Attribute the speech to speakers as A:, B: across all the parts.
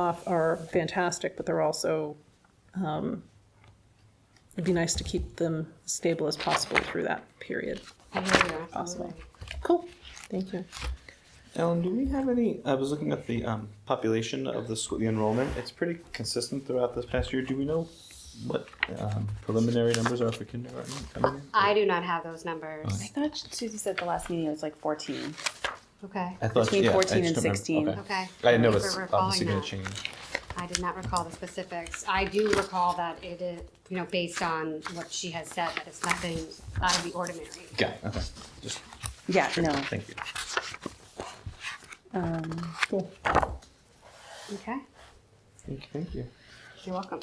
A: off are fantastic, but they're also, um, it'd be nice to keep them stable as possible through that period.
B: Possible.
A: Cool, thank you.
C: Ellen, do we have any? I was looking at the um, population of the school, the enrollment. It's pretty consistent throughout this past year. Do we know what um, preliminary numbers are for kindergarten coming in?
B: I do not have those numbers.
D: I thought Susie said the last meeting it was like 14.
B: Okay,
C: I thought
D: Between
C: yeah, I
D: 14 and
C: just don't remember.
D: 16.
C: Okay.
B: okay.
C: I didn't know
B: Thank you
C: it's
B: for recalling
C: obviously going
B: that.
C: to change.
B: I did not recall the specifics. I do recall that it is, you know, based on what she has said, that it's nothing out of the ordinary.
C: Yeah. Okay. Just
D: Yeah, no.
C: thank you.
D: Um,
C: Cool.
B: Okay,
C: Thank you. Thank you.
B: you're welcome.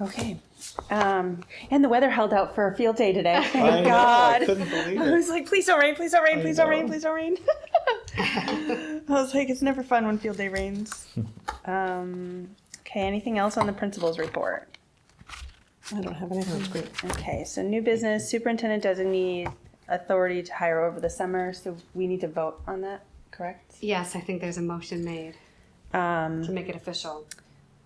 D: okay. Um, and the weather held out for a field day today. Thank
C: I know, I
D: God.
C: couldn't believe
D: I
C: it.
D: was like, please don't rain, please don't rain,
C: I
D: please don't rain,
C: know.
D: please don't rain. I was like, it's never fun when field day rains. Um, okay, anything else on the principal's report?
A: I don't have anything.
D: Okay, so new business, superintendent designee authority to hire over the summer. So we need to vote on that, correct?
B: Yes, I think there's a motion made
D: Um,
B: to make it official.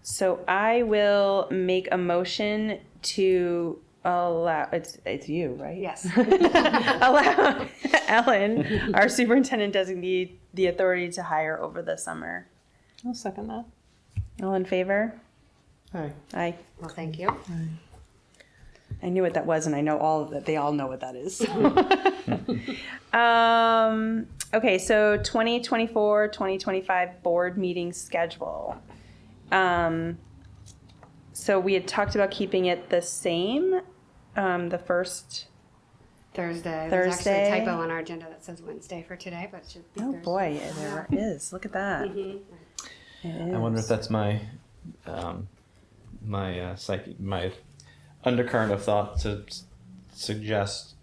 D: so I will make a motion to allow, it's, it's you, right?
B: Yes.
D: Allow Ellen, our superintendent designee, the authority to hire over the summer.
A: I'll second that.
D: All in favor?
C: Hi.
D: I,
B: Well, thank you.
D: I knew what that was and I know all, that they all know what that is. Um, okay, so 2024, 2025 board meeting schedule. Um, so we had talked about keeping it the same, um, the first,
B: Thursday. There's actually a
D: Thursday.
B: typo on our agenda that says Wednesday for today, but it should be
D: oh
B: Thursday.
D: boy, there is, look at that.
B: Mhm.
D: It
C: I wonder if
D: is.
C: that's my um, my uh, psyche, my undercurrent of thought to s- suggest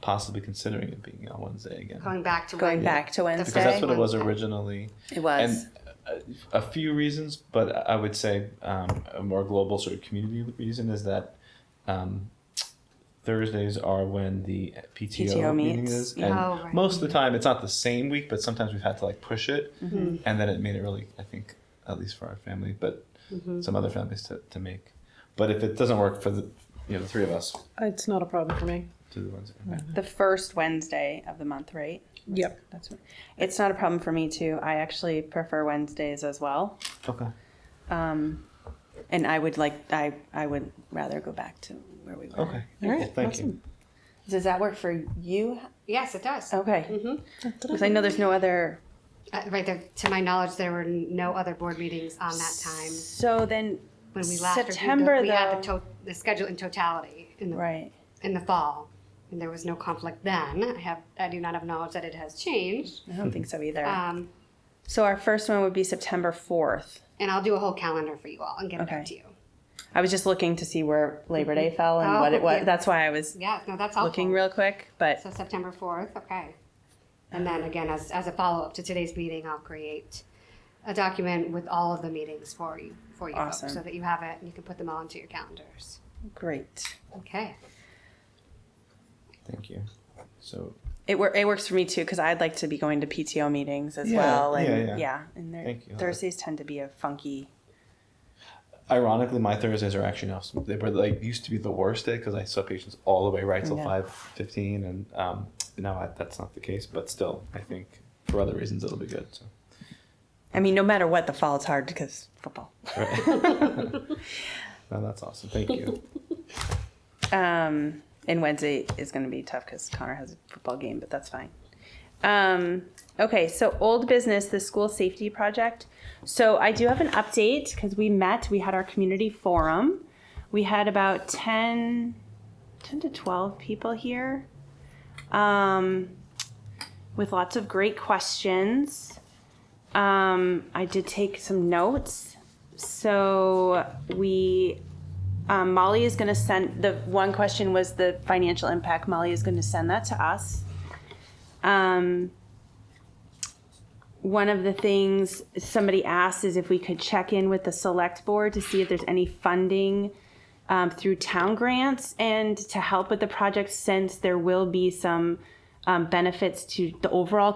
C: possibly considering it being on Wednesday again.
B: Going back to Wednesday.
D: Going back to
B: Because
C: because that's
D: Wednesday.
C: what it was
B: Wednesday.
C: originally.
D: It was,
C: And a, a few reasons, but I would say um, a more global sort of community reason is that um, Thursdays are when the PTO,
D: PTO
C: meeting
D: meets.
C: is,
D: Yeah.
C: and
B: Oh, right.
C: most of the time it's not the same week, but sometimes we've had to like push it, and then it made it really, I think, at least for our family, but some other families to, to make. But if it doesn't work for the you know the three of us,
A: It's not a problem for me.
C: to the Wednesday.
D: the first Wednesday of the month, right?
A: Yep.
D: That's, what- it's not a problem for me too. I actually prefer Wednesdays as well.
C: Okay.
D: Um, and I would like, I, I would rather go back to where we were.
C: Okay.
A: All right,
C: Thank you.
A: awesome.
D: Does that work for you?
B: Yes, it does.
D: Okay.
B: Mhm.
D: Because I know there's no other.
B: Uh, Right there, to my knowledge, there were no other board meetings on that time.
D: So then,
B: when we left. or we-
D: September,
B: We had the,
D: though.
B: to- the schedule in totality in the,
D: right.
B: in the fall, and there was no conflict then. I have, I do not have knowledge that it has changed.
D: I don't think so either.
B: Um,
D: so our first one would be September 4th.
B: and I'll do a whole calendar for you all and get it
D: Okay.
B: out to you.
D: I was just looking to see where Labor Day fell and what
B: Oh,
D: it was.
B: yeah.
D: That's why I was
B: Yeah, no, that's helpful.
D: looking real quick. But
B: So September fourth, okay. And then again, as, as a follow-up to today's meeting, I'll create a document with all of the meetings for you, for you folks,
D: Awesome.
B: so that you have it and you can put them all into your calendars.
D: great.
B: Okay,
C: Thank you. So
D: It, wor- it works for me too because I'd like to be going to PTO meetings as
C: Yeah,
D: well. And
C: yeah, yeah.
D: and they're-
C: Thank you.
D: Thursdays tend to be a funky.
C: Ironically, my Thursdays are actually now some, they were like used to be the worst day because I saw patients all the way right till
D: Yeah.
C: five fifteen, and um, now I, that's not the case. But still, I think for other reasons it'll be good. So.
D: I mean, no matter what, the fall is hard because football.
C: No, that's awesome. Thank you.
D: Um, and Wednesday is going to be tough because Connor has a football game, but that's fine. Um, okay, so old business, the school safety project. So I do have an update because we met, we had our community forum. We had about 10, 10 to 12 people here um, with lots of great questions. Um, I did take some notes. So we um, Molly is going to send the one question was the financial impact. Molly is going to send that to us. Um, one of the things somebody asked is if we could check in with the select board to see if there's any funding um, through town grants and to help with the project since there will be some um, benefits to the overall